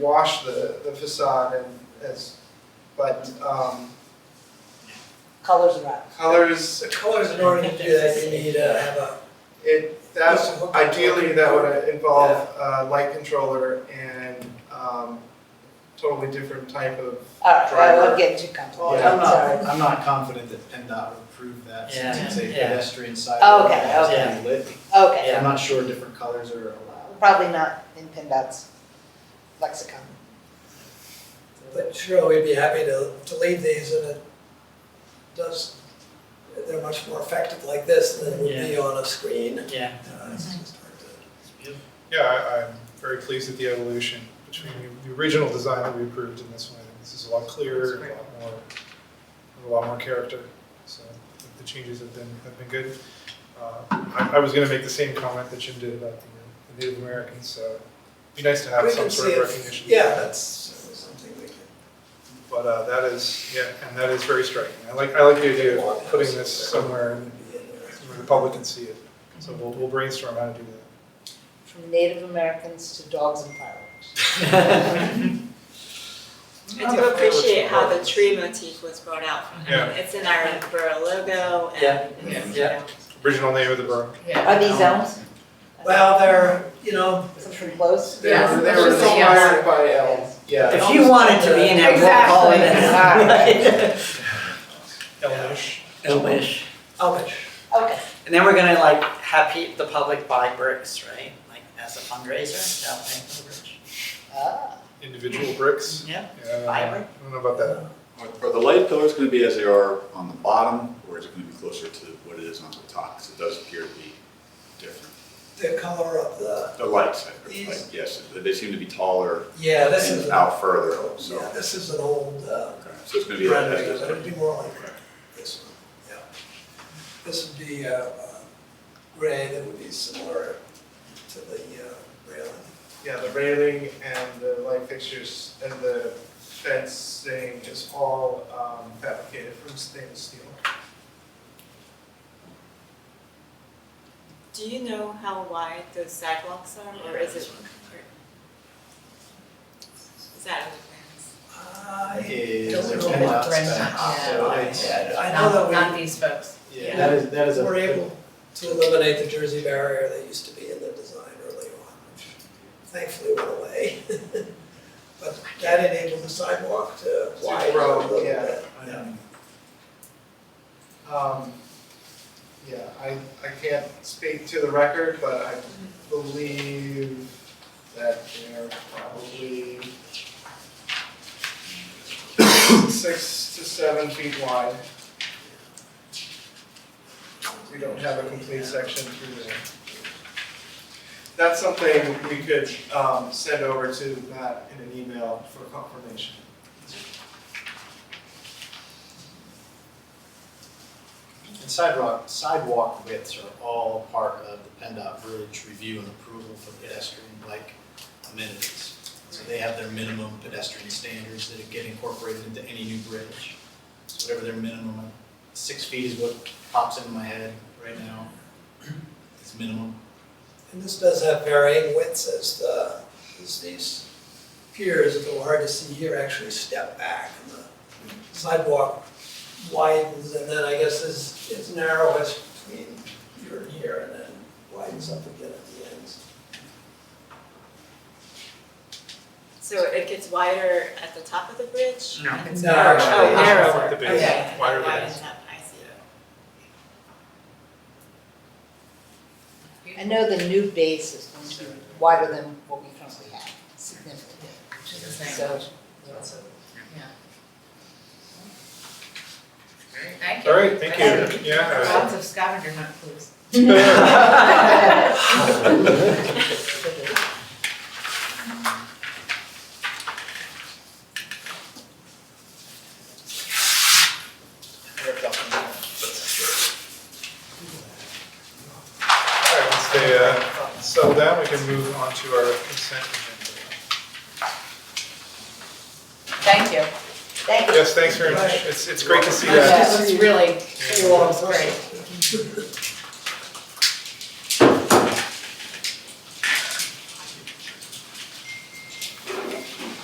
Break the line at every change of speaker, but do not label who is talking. wash the, the facade and as, but, um,
colors are out.
colors,
The colors, in order to do that, you need to have a,
it, that's, ideally, that would involve a light controller and, um, totally different type of,
All right, I
Driver.
won't get too comfortable,
Oh,
I'm
I'm not,
sorry.
I'm not confident that PennDOT would approve that since
Yeah.
it's a
Yeah.
pedestrian sidewalk.
Oh, Okay,
that has to
okay.
be lit.
Okay,
Yeah.
I'm not sure different colors are allowed.
probably not in PennDOT's lexicon.
but sure, we'd be happy to, to leave these and it does, they're much more effective like this than it would be on a screen.
Yeah.
Uh, it's just hard to-
Yeah, I, I'm very pleased with the evolution between the, the original design that we approved and this one. I think This is a lot clearer, and a lot more, a lot more character. So I think the changes have been, have been good. Uh, I, I was gonna make the same comment that Jim did about the- the Native Americans, so it'd be nice to have
We
some
can
sort
see
of
if-
recognition.
Yeah, that's something we can,
But, uh, that is, yeah, and that is very striking. I like, I like the idea of putting this somewhere and
be in there.
where the public can see it. So we'll, we'll brainstorm how to do that.
From Native Americans to dogs and fireworks.
I do appreciate how the tree motif was brought out. I mean,
Yeah.
It's in our borough logo
Yeah.
and, it's, you
Yeah.
know,
Original name of the borough.
Are these elms?
Well, they're, you know,
Something close?
they were, they
Yes,
were
just saying
inspired
yes.
by elves, yeah.
If you wanted to be in that roll call, then.
Elmish.
Elvish.
Amish.
Okay,
And then we're gonna like have pe- the public buy bricks, right? Like as a fundraiser, that'll pay for the bridge.
ah,
individual bricks.
Yeah.
Yeah, I don't know.
Fiber.
I don't know about that.
Are are the light pillars gonna be as they are on the bottom, or is it gonna be closer to what it is on the top? Because it does appear to be different.
the color of the,
The lights, I-
These-
like, yes, they seem to be taller
yeah, this is,
and
yeah,
out further, so.
this is an old, uh,
okay. So it's gonna be
brand,
as,
new, but it'd
as,
be more like this one, yeah. This would be, uh, uh, gray that would be similar to the, uh, railing.
Yeah, the railing and the light fixtures and the fencing is all, um, fabricated from stainless steel.
Do you know how wide those sidewalks are or is it? Is that in the plans?
I
Is
don't
there
know
PennDOT
about
spec, so it's,
Yeah, I know that
these folks.
yeah, that is, that is
we
a.
were able to eliminate the Jersey barrier that used to be in the design early on, which thankfully went away. But that enabled the sidewalk to widen a
grow,
little bit.
yeah.
Yeah.
Um, yeah, I, I can't speak to the record, but I believe that they're probably six to seven feet wide. We don't have a complete section through there. That's something we could, um, send over to Matt in an email for confirmation.
And sidewalk, sidewalk widths are all part of the PennDOT bridge review and approval for pedestrian bike amenities. So they have their minimum pedestrian standards that get incorporated into any new bridge. So whatever their minimum, six feet is what pops into my head right now, is minimum.
And this does have varying widths as the, as these piers, if it hard to see here, actually step back and the sidewalk widens and then I guess is, is narrowest between here and here and then widens up again at the ends.
So it gets wider at the top of the bridge?
No.
And-
No,
Oh,
actually,
oh,
it's
narrower.
the base,
Okay.
wider than
Widen
this.
up, I see.
I know the new base is going to be wider than what we currently have, significantly.
Which is the same.
So,
Thank you.
All right, thank you. Yeah.
Lots of scavenger hunt clues.
All right, once they uh, settle down, we can move on to our consent agenda.
Thank you.
thank you.
Yes, thanks very much. It's, it's great to see that.
This is really,
Yeah.
it was great.